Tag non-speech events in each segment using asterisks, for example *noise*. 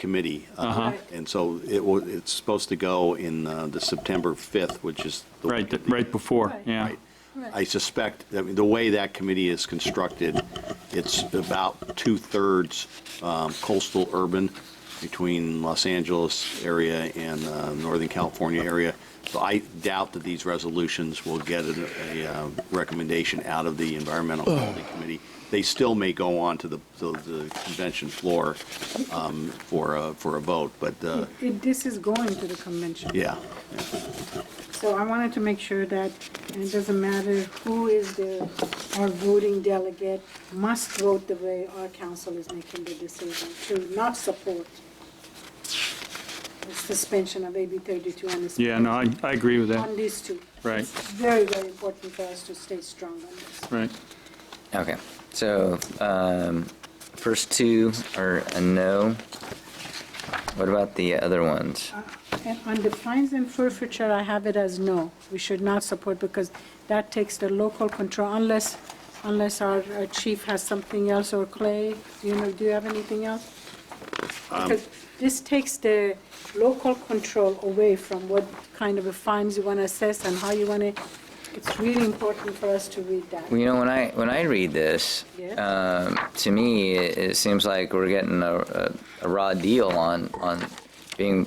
committee. uh, And so it wa, it's supposed to go in uh, the September 5th, which is. the Right, week of th- the- right before, Right. yeah. Right. I suspect, I mean, the way that committee is constructed, it's about two-thirds um, coastal urban between Los Angeles area and uh, Northern California area. So I doubt that these resolutions will get a a, uh, recommendation out of the Environmental Quality Committee. They still may go on to the, to the convention floor um, for, a- for a vote, but, uh, It- This is going to the convention. yeah. So I wanted to make sure that, and it doesn't matter who is the, our voting delegate must vote the way our council is making the decision to not support the suspension of AB 32 and this. Yeah, no, I, I agree with On that, these two. Right. It's Very, very important for us to stay strong on this. right. Okay, so um, first two are a no. What about the other ones? And on the fines and forfeiture, I have it as no. We should not support because that takes the local control unless, unless our our chief has something else or Clay, do you know, do you have anything else? Because this takes the local control away from what kind of a fines you want to assess and how you want to, it's really important for us to read that. Well, you know, when I when I read this, Yes. um, to me, it, it seems like we're getting a, a, a raw deal on on being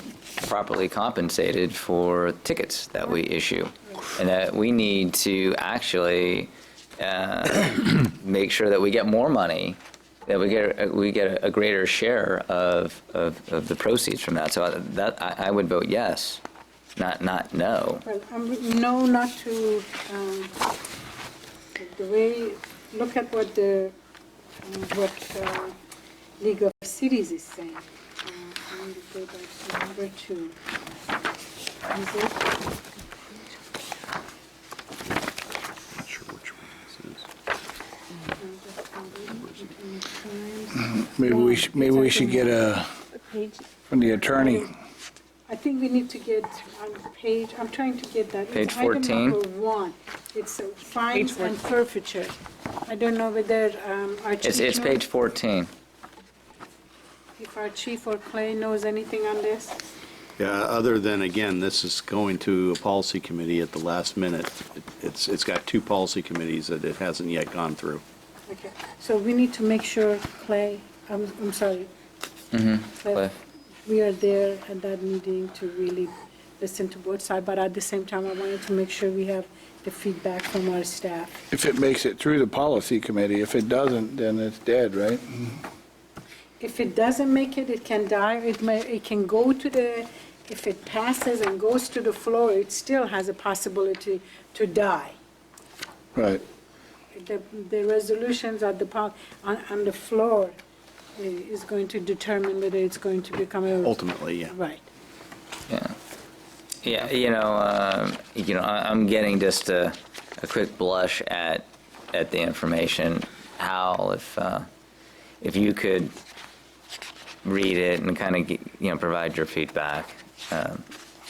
properly compensated for tickets that we issue, and that we need to actually uh, *coughs* make sure that we get more money, that we get we get a greater share of of, of the proceeds from that. So I, that I, I would vote yes, not not no. Well, um, no, not to, um, the way, look at what the, um, what uh, League of Cities is saying. Uh, I need to go back to number two. Is it? Not sure which one this is. Maybe we, sh- maybe we should get a, from the attorney. I think we need to get on page, I'm trying to get that. Page It's item 14. number one. It's uh, fines and forfeiture. I don't know whether um, our chief. It's it's knows- page 14. If our chief or Clay knows anything on this. Yeah, other than, again, this is going to a policy committee at the last minute. It's, it's got two policy committees that it hasn't yet gone through. Okay, so we need to make sure Clay, I'm, I'm sorry. Mm-hmm. Clay. That We are there at that meeting to really listen to both sides, but at the same time, I wanted to make sure we have the feedback from our staff. If it makes it through the policy committee, if it doesn't, then it's dead, right? If it doesn't make it, it can die, it may, it can go to the, if it passes and goes to the floor, it still has a possibility to die. Right. The, the resolutions at the, pol- on, on the floor i- is going to determine whether it's going to become a. Ultimately, yeah. Right. Yeah, yeah. you know, um, you know, I- I'm getting just a, a quick blush at, at the information. Hal, if, uh, if you could read it and kind of, you know, provide your feedback, um,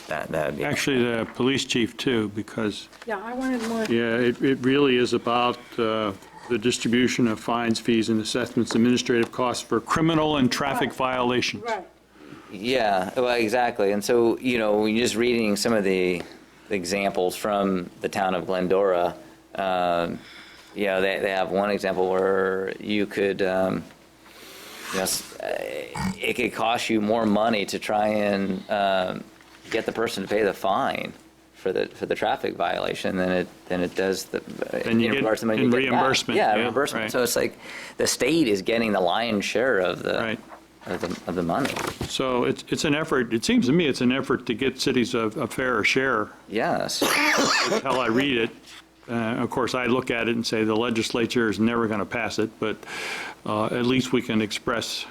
that, that would be. Actually, the police chief too, because, Yeah, I wanted more. yeah, it, it really is about uh, the distribution of fines, fees, and assessments, administrative costs for criminal and traffic Right. violations. Right. Yeah, well, exactly. And so, you know, when you're just reading some of the examples from the town of Glendora, um, you know, they, they have one example where you could, um, you know, s- uh, it could cost you more money to try and um, get the person to pay the fine for the, for the traffic violation than it, than it does the. Than you in get- regards to money you in get back. reimbursement, Yeah, yeah, reimbursement. right. So it's like, the state is getting the lion's share of the, Right. of the, of the money. So it's, it's an effort, it seems to me it's an effort to get cities a a fairer share, Yes. Until I read it. uh, Of course, I look at it and say the legislature is never going to pass it, but uh, at least we can express,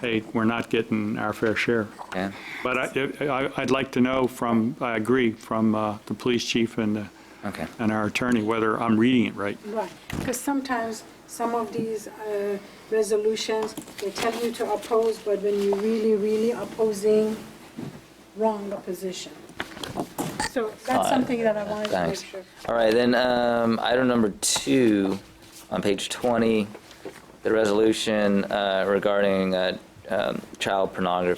hey, we're not getting our fair share. Yeah. But I- I- I'd like to know from, I agree, from uh, the police chief and, uh, Okay. and our attorney, whether I'm reading it right. Right, because sometimes some of these uh, resolutions, they tell you to oppose, but when you really, really opposing, wrong opposition. So that's something that I wanted to make Thanks. sure. All right, then, um, item number two, on page 20, the resolution uh, regarding uh, um, child pornography